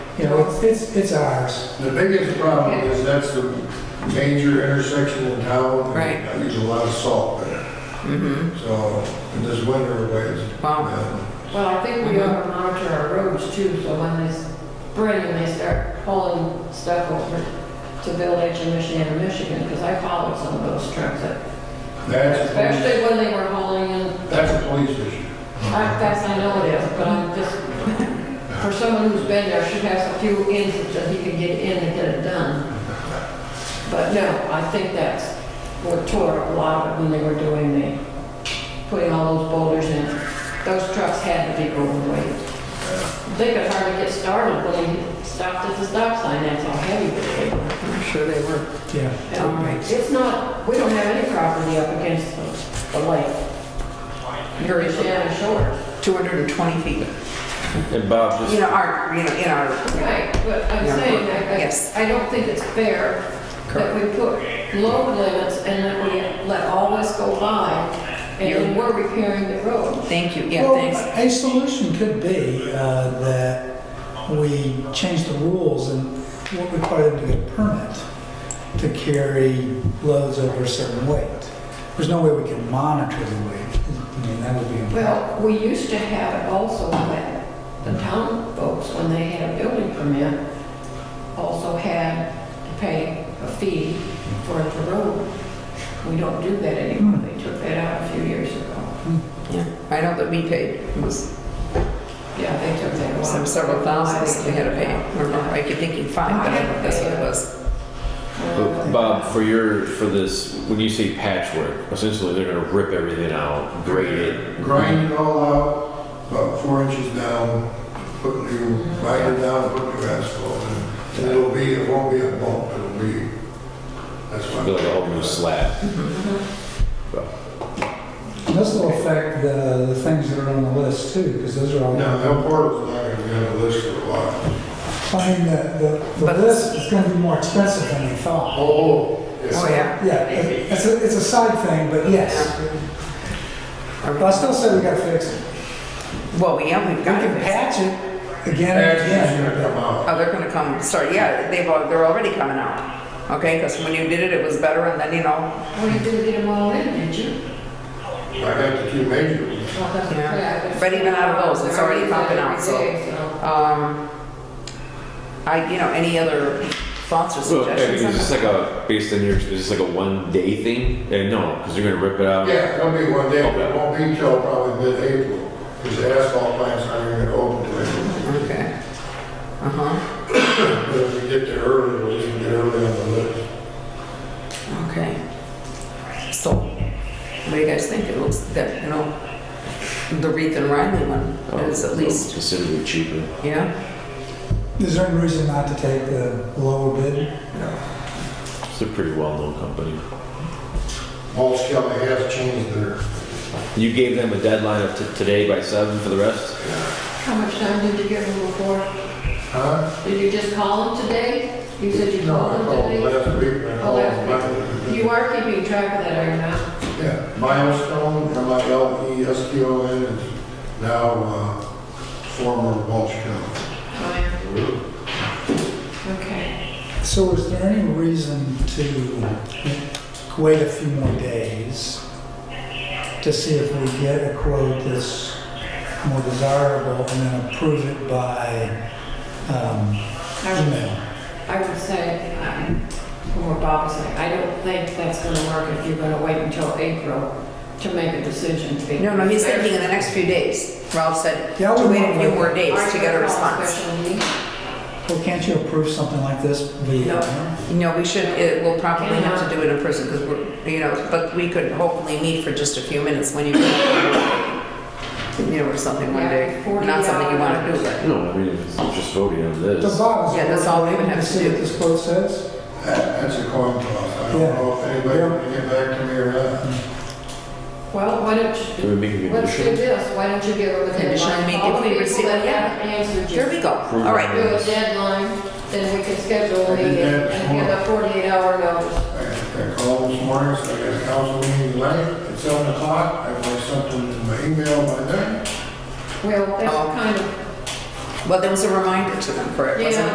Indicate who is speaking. Speaker 1: You know, it's, it's, it's ours.
Speaker 2: The biggest problem is that's the major intersection in town.
Speaker 3: Right.
Speaker 2: I use a lot of salt there,
Speaker 3: Mm-hmm.
Speaker 2: so in this winter ways.
Speaker 3: Wow.
Speaker 4: Well, I think we ought to monitor our roads too, so when they spring and they start hauling stuff over to Village and Michigan and Michigan, because I followed some of those trucks, that-
Speaker 2: That's, a
Speaker 4: especially when they were hauling in,
Speaker 2: police- that's a police issue.
Speaker 4: I- that's, I know it is, but I'm just, for someone who's been there, should have a few inches that he can get in and get it done. But no, I think that's what tore up a lot of it when they were doing the, putting all those boulders in. Those trucks had to be overweight. They could hardly get started when they stopped at the stop sign, that's how heavy they were.
Speaker 3: I'm sure they were.
Speaker 1: Yeah.
Speaker 3: All right.
Speaker 4: It's not, we don't have any property up against the, the lake,
Speaker 3: Very
Speaker 4: the Shannon Shores.
Speaker 3: 220 feet.
Speaker 5: And Bob, just
Speaker 3: You know, our, you know, in our,
Speaker 4: Right, but I'm
Speaker 3: Yeah.
Speaker 4: saying, I-
Speaker 3: Yes.
Speaker 4: I, I don't think it's fair that we put load limits and that we let all this go by and then we're repairing the road.
Speaker 3: thank you, yeah,
Speaker 1: Well,
Speaker 3: thanks.
Speaker 1: A solution could be uh, that we change the rules and we'll require them to get a permit to carry loads over a certain weight. There's no way we can monitor the weight. I mean, that would be impossible.
Speaker 4: Well, we used to have it also that the town folks, when they had a building permit, also had to pay a fee for the road. We don't do that anymore. They took that out a few years ago.
Speaker 3: Yeah, I know that we paid, it was
Speaker 4: Yeah, they took that out.
Speaker 3: some several thousands we had to pay. I don't know, I keep thinking five, but I don't think that's what it was.
Speaker 5: but Bob, for your for this, when you say patchwork, essentially they're gonna rip everything out, grade it.
Speaker 2: Grind it all out, about four inches down, put new, grind it down, put new asphalt in. And it'll be, it won't be a bump, it'll be, that's why.
Speaker 5: Build a whole new slab.
Speaker 1: This will affect the, the things that are on the list too, because those are all.
Speaker 2: No, El Porto's not gonna be on the list for a while.
Speaker 1: I mean, the, the, the
Speaker 3: But-
Speaker 1: list is gonna be more expensive than we thought.
Speaker 2: Oh,
Speaker 3: Oh, yeah.
Speaker 1: Yeah, it- it's a, it's a side thing, but yes. But I still say we gotta fix it.
Speaker 3: Well, yeah, we've
Speaker 1: We
Speaker 3: got
Speaker 1: can
Speaker 3: it.
Speaker 1: patch it again and
Speaker 2: Patches are gonna
Speaker 1: again.
Speaker 2: come out.
Speaker 3: Oh, they're gonna come, sorry, yeah, they've, al- they're already coming out. Okay, because when you did it, it was better, and then, you know,
Speaker 4: Well, you didn't get them all in, did you?
Speaker 2: I got the two major ones.
Speaker 4: Well, that's
Speaker 3: Yeah.
Speaker 4: correct.
Speaker 3: But even out of those, it's already popping out, so-
Speaker 4: Every day, so.
Speaker 3: um, I, you know, any other thoughts or
Speaker 5: So I mean,
Speaker 3: suggestions? on
Speaker 5: is
Speaker 3: that?
Speaker 5: this like a based on your is this like a one day thing? Eh, no, because you're gonna rip it out.
Speaker 2: Yeah, it'll be one day, but it won't be till probably mid-April, because the asphalt plant's not even gonna open till April.
Speaker 3: Okay. Uh-huh,
Speaker 2: But if we get there early, we'll just get early on the list.
Speaker 3: okay. So, what do you guys think? It looks that, you know, the Reith and Riley one
Speaker 5: Oh,
Speaker 3: is at
Speaker 5: so
Speaker 3: least,
Speaker 5: considerably cheaper.
Speaker 3: yeah?
Speaker 1: Is there any reason not to take the lower bid?
Speaker 5: It's a pretty well known company.
Speaker 2: Mulch County has changed their,
Speaker 5: You gave them a deadline of t- today by seven for the rest.
Speaker 4: How much time did you give them before?
Speaker 2: huh?
Speaker 4: Did you just call them today? You said you
Speaker 2: No, I
Speaker 4: called
Speaker 2: called
Speaker 4: them
Speaker 2: last week, and I
Speaker 4: Oh,
Speaker 2: called
Speaker 4: last
Speaker 2: them
Speaker 4: today? You are keeping track of that, are you not?
Speaker 2: back. Yeah, Milestone, E M-I-L-E-S-T-O-N, is now, uh, former Mulch County.
Speaker 4: Oh, yeah. Okay.
Speaker 1: So is there any reason to wait a few more days to see if we get a quote that's more desirable and then approve it by um,
Speaker 4: I would-
Speaker 1: email?
Speaker 4: I would say, um, from what Bob was saying, I don't think that's going to work if you're going to wait until April to make a decision.
Speaker 3: No, no, he's thinking in the next few days. Ralph said
Speaker 1: Yeah, I
Speaker 3: to
Speaker 1: wouldn't
Speaker 3: wait a
Speaker 1: want
Speaker 3: few
Speaker 1: to-
Speaker 3: more days to get a response.
Speaker 1: Well, can't you approve something like this via
Speaker 4: No.
Speaker 1: email?
Speaker 3: No, we should, it, we'll probably have to do it in person, because we're, you know, but we could hopefully meet for just a few minutes when you, you know, or something one
Speaker 4: Yeah,
Speaker 3: day.
Speaker 4: 40
Speaker 3: Not something you want to do,
Speaker 4: hours.
Speaker 3: but.
Speaker 5: No, I mean it's just voting on this.
Speaker 1: The bottom.
Speaker 3: Yeah, that's all we would have to
Speaker 1: See what
Speaker 3: do.
Speaker 1: this quote says?
Speaker 2: That, that's a coin toss. I don't
Speaker 1: Yeah.
Speaker 2: know if anybody
Speaker 1: Yeah.
Speaker 2: can get back to me or not.
Speaker 4: Well, why don't you
Speaker 5: Can we make a
Speaker 4: Let's do
Speaker 5: condition?
Speaker 4: this, why don't you give them a
Speaker 3: Condition
Speaker 4: deadline?
Speaker 3: meeting.
Speaker 4: All the
Speaker 3: If we
Speaker 4: people
Speaker 3: receive-
Speaker 4: that
Speaker 3: yeah.
Speaker 4: haven't answered you.
Speaker 3: Here we go. All right.
Speaker 4: Do a deadline, then we can schedule a
Speaker 2: I did
Speaker 4: meeting
Speaker 2: that
Speaker 4: and give a forty-eight hour notice.
Speaker 2: I I called this morning, so I got a council meeting tonight at seven o'clock. I want something in my email by then.
Speaker 4: Well, that's
Speaker 3: Oh.
Speaker 4: kind of
Speaker 3: Well, there was a reminder to them, correct? wasn't
Speaker 4: Yeah.
Speaker 3: there?